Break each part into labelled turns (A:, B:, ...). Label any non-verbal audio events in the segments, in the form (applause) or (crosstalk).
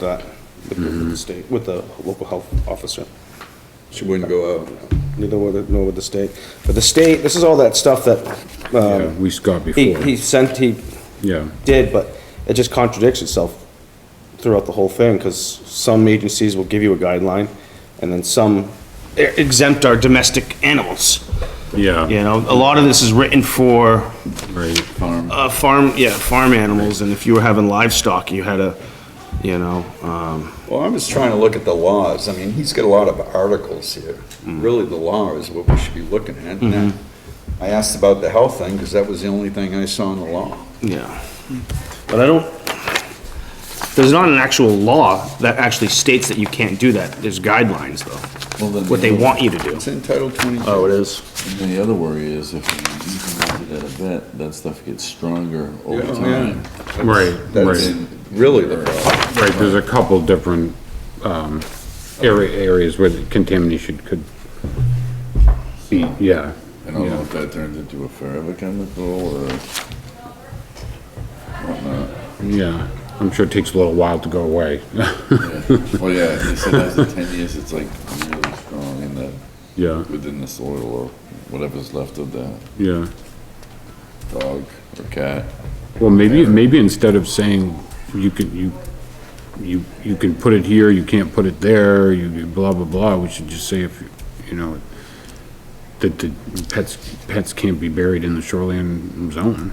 A: that with the state, with the local health officer.
B: She wouldn't go out.
A: Neither with, the- nor with the state. But the state, this is all that stuff that,
C: Yeah,
A: um,
C: we got
A: he,
C: before,
A: he sent, he
C: yeah.
A: did, but it just contradicts itself throughout the whole thing, because some agencies will give you a guideline, and then some e, exempt our domestic animals.
C: Yeah.
A: You know, a lot of this is written for,
C: Right.
A: uh, farm, yeah, farm animals, and if you were having livestock, you had a, you know, um,
B: Well, I'm just trying to look at the laws. I mean, he's got a lot of articles here. Really, the law is what we should be looking at. And that- I asked about the health thing because that was the only thing I saw in the law.
A: Yeah, but I don't, there's not an actual law that actually states that you can't do that. There's guidelines,
D: Well,
A: though,
D: then
A: what they
D: the-
A: want you to do.
B: It's in Title 22.
A: is?
D: And then the other worry is if you use it at a vet, that stuff gets stronger over
B: Yeah, oh,
D: time.
B: yeah.
C: Right,
B: That's
C: right,
B: really the problem.
C: right, there's a couple different, um, area, areas where the contamination could be, yeah,
D: I don't know if that turns into a forever
B: (laughs)
D: chemical or whatnot.
C: yeah. I'm sure it takes a little while to go away, (laughs)
D: Yeah. Well, yeah, they said after ten years, it's like really strong in the,
C: yeah,
D: within the soil or whatever's left of the
C: yeah.
D: dog or cat.
C: Well, maybe, maybe instead of saying you can, you, you, you can put it here, you can't put it there, you you blah, blah, blah, we should just say if, you- you know, that the pets, pets can't be buried in the shoreline zone.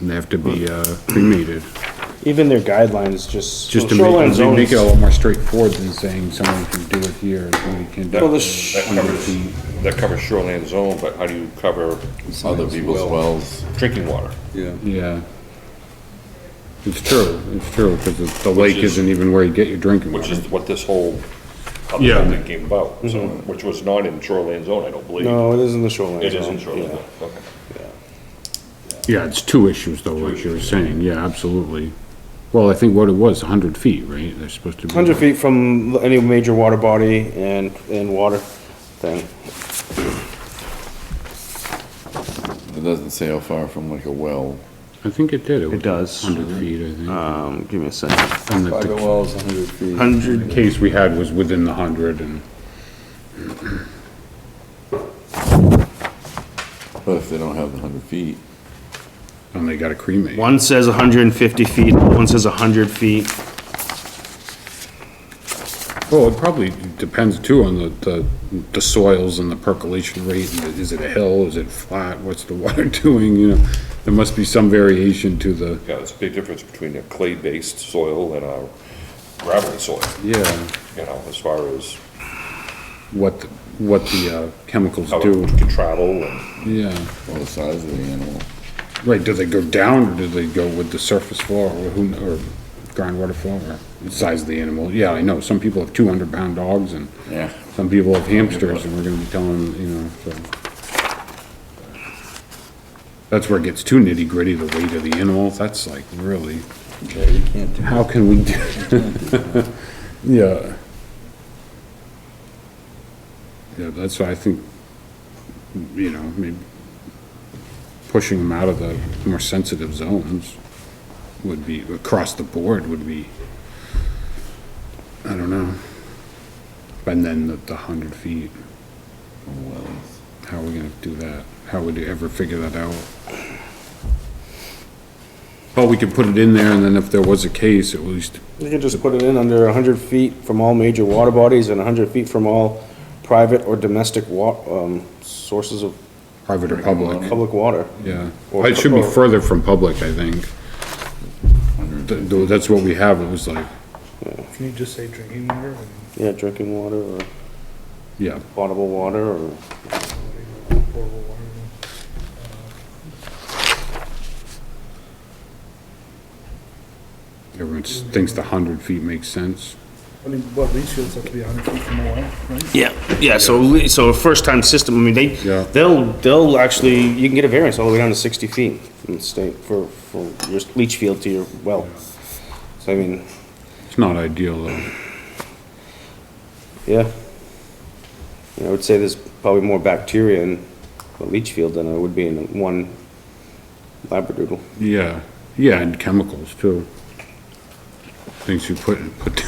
C: And They have to be, uh, cremated,
A: Even their guidelines just.
C: just to
A: Shoreline
C: make, they
A: zones-
C: make it a lot more straightforward than saying someone can do it here, and somebody can do
A: Well, the
C: it.
A: sh-
E: That covers, that covers shoreline zone, but how do you cover
D: Other people's
B: well.
D: wells,
E: drinking water?
B: Yeah.
C: Yeah. It's true, it's true, because the the lake isn't even where you get your drinking water.
E: Which is what this whole, how the
C: Yeah.
E: whole thing came about, so, which was not in shoreline zone, I don't believe.
A: Mm-hmm. No, it isn't the shoreline.
E: It is
A: zone,
E: in shoreline
A: yeah.
E: zone, okay.
C: Yeah, it's two issues though, like you were saying, yeah, absolutely. Well, I think what it was, hundred feet, right? They're supposed to be.
A: Hundred feet from any major water body and, and water thing.
D: it doesn't say how far from like a well.
C: I think it did.
A: It does.
C: Hundred feet, I think.
A: Um, give me a second.
C: And that
A: oh
B: Private
C: the
B: well is 100 feet.
A: Hundred,
C: case we had was within the hundred and,
D: But if they don't have the hundred feet,
C: and they got to cremate.
A: one says hundred and fifty feet, one says hundred feet.
C: Well, it probably depends too on the, the, the soils and the percolation rate. and the- Is it a hill? Is it flat? What's the (laughs) water doing? You know, there must be some variation to the,
E: Yeah, there's a big difference between a clay-based soil and a gravelly soil,
C: yeah,
E: you know, as far as
C: what, the- what the uh, chemicals
E: how
A: Oh,
C: do.
E: it can travel and,
C: Yeah.
D: or the size of the animal.
C: Right, do they go down, or do they go with the surface flow, or who, kn- or groundwater flow, or the size of the animal? Yeah, I know, some people have two hundred pound dogs, and
D: Yeah.
C: some people have hamsters, and we're gonna be telling, them, you know, so. That's where it gets too nitty gritty, the weight of the animal, that's like, really,
B: Yeah, you can't do
C: how can we do? (laughs) Yeah. Yeah, that's why I think, you know, maybe pushing them out of the more sensitive zones would be, across the board would be, I don't know. And then the, the hundred feet,
D: Wells.
C: how are we gonna do that? How would you ever figure that out? Well, we could put it in there, and then if there was a case, at least
A: You can just put it in under hundred feet from all major water bodies and hundred feet from all private or domestic wa, um, sources of
C: private or public.
A: public water.
C: Yeah,
A: Or-
C: it should be
A: or-
C: further from public, I think. Th- th- That's what we have, it was like,
F: Can you just say drinking water?
A: Yeah, drinking water or
C: yeah,
A: potable water or,
F: and potable water? uh,
C: everyone s- thinks the hundred feet makes sense.
F: I mean, what, leach fields have to be hundred feet from a well, right?
A: yeah, yeah, so, le- so a first-time system, I mean, they,
C: Yeah.
A: they'll, they'll actually, you can get a variance all the way down to sixty feet in the state for, for your leach field to your well. So I mean,
C: It's not ideal, though.
A: yeah. Yeah, I would say there's probably more bacteria in a leach field than there would be in one labradoodle.
C: Yeah, yeah, and chemicals, too. things you put, put